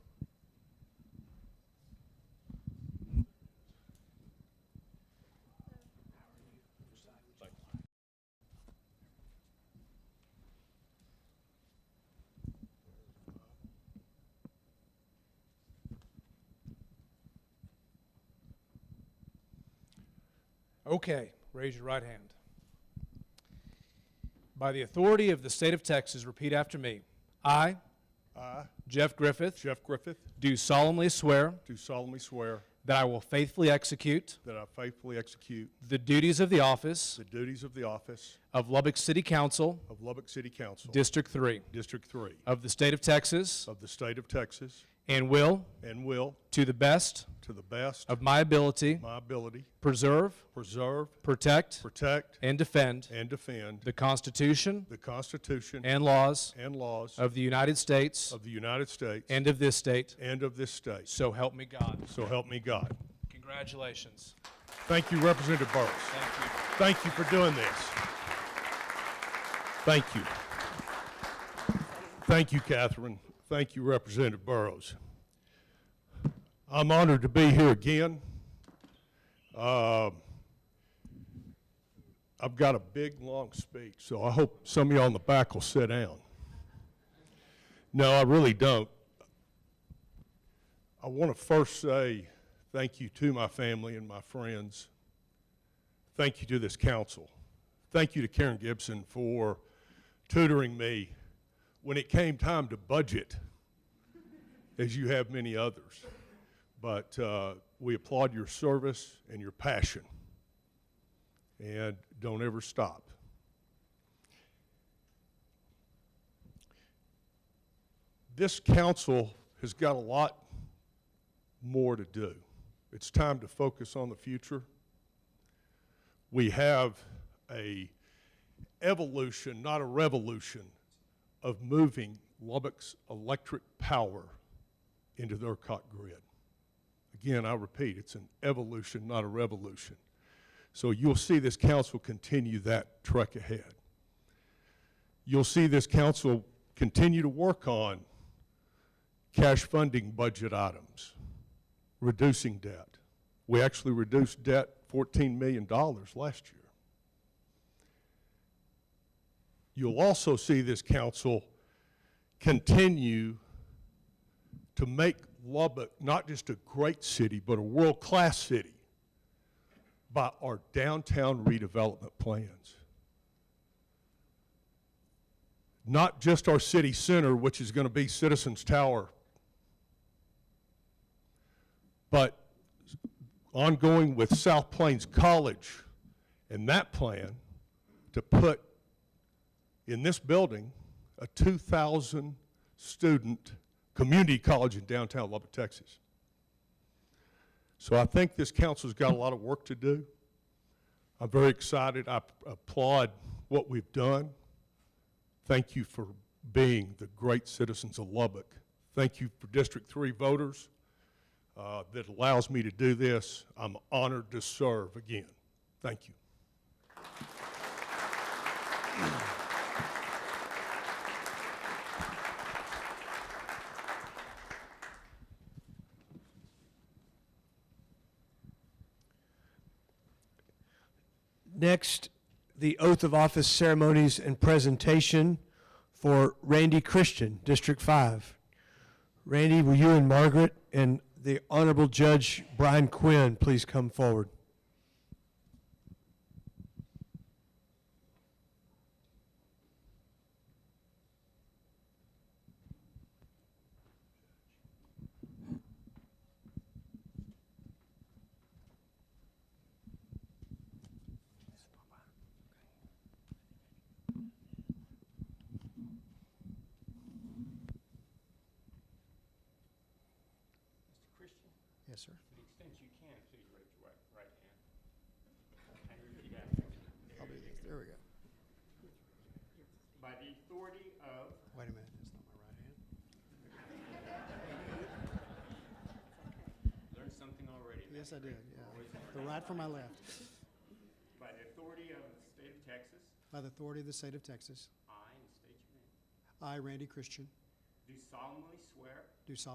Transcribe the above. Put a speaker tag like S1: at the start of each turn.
S1: Okay, raise your right hand. By the authority of the state of Texas, repeat after me. I,
S2: I,
S1: Jeff Griffith,
S2: Jeff Griffith,
S1: do solemnly swear
S2: do solemnly swear
S1: that I will faithfully execute
S2: that I faithfully execute
S1: the duties of the office
S2: the duties of the office
S1: of Lubbock City Council,
S2: of Lubbock City Council,
S1: District 3,
S2: District 3
S1: of the state of Texas,
S2: of the state of Texas,
S1: and will,
S2: and will,
S1: to the best
S2: to the best of
S1: of my ability,
S2: my ability,
S1: preserve,
S2: preserve,
S1: protect,
S2: protect,
S1: and defend
S2: and defend
S1: the Constitution
S2: the Constitution
S1: and laws
S2: and laws
S1: of the United States
S2: of the United States
S1: and of this state.
S2: and of this state.
S1: So help me God.
S2: So help me God.
S1: Congratulations.
S2: Thank you, Representative Burris.
S1: Thank you.
S2: Thank you for doing this. Thank you. Thank you, Catherine. Thank you, Representative Burrows. I'm honored to be here again. Um, I've got a big, long speech, so I hope some of y'all in the back will sit down. No, I really don't. I want to first say thank you to my family and my friends thank you to this council. Thank you to Karen Gibson for tutoring me when it came time to budget, as you have many others. But uh, we applaud your service and your passion. And don't ever stop. This council has got a lot more to do. It's time to focus on the future we have a evolution, not a revolution, of moving Lubbock's electric power into the ERCOT grid. Again, I repeat, it's an evolution, not a revolution. So you'll see this council continue that trek ahead. You'll see this council continue to work on cash funding budget items, reducing debt. We actually reduced debt $14 million last year. You'll also see this council continue to make Lubbock not just a great city, but a world class city by our downtown redevelopment plans. Not just our city center, which is going to be Citizens Tower, but ongoing with South Plains College and that plan to put in this building a 2,000 student community college in downtown Lubbock, Texas. So I think this council's got a lot of work to do. I'm very excited. I applaud what we've done. Thank you for being the great citizens of Lubbock. Thank you for District 3 voters uh, that allows me to do this. I'm honored to serve again. Thank you.
S3: Next, the oath of office ceremonies and presentation for Randy Christian, District 5. Randy, will you and Margaret and the Honorable Judge Brian Quinn please come forward? Yes, sir.
S4: extent you can, please raise your right, right hand. And repeat after me.
S5: I'll do this. There we go.
S4: By the authority of,
S5: Wait a minute. That's
S4: learned
S5: not my right hand.
S4: something already, man.
S5: Yes, I did. Yeah. The right from my left.
S4: by the authority of the state of Texas,
S5: By the authority of the state of Texas,
S4: I, and state your name,
S5: I, Randy Christian,
S4: do solemnly swear
S5: do solemnly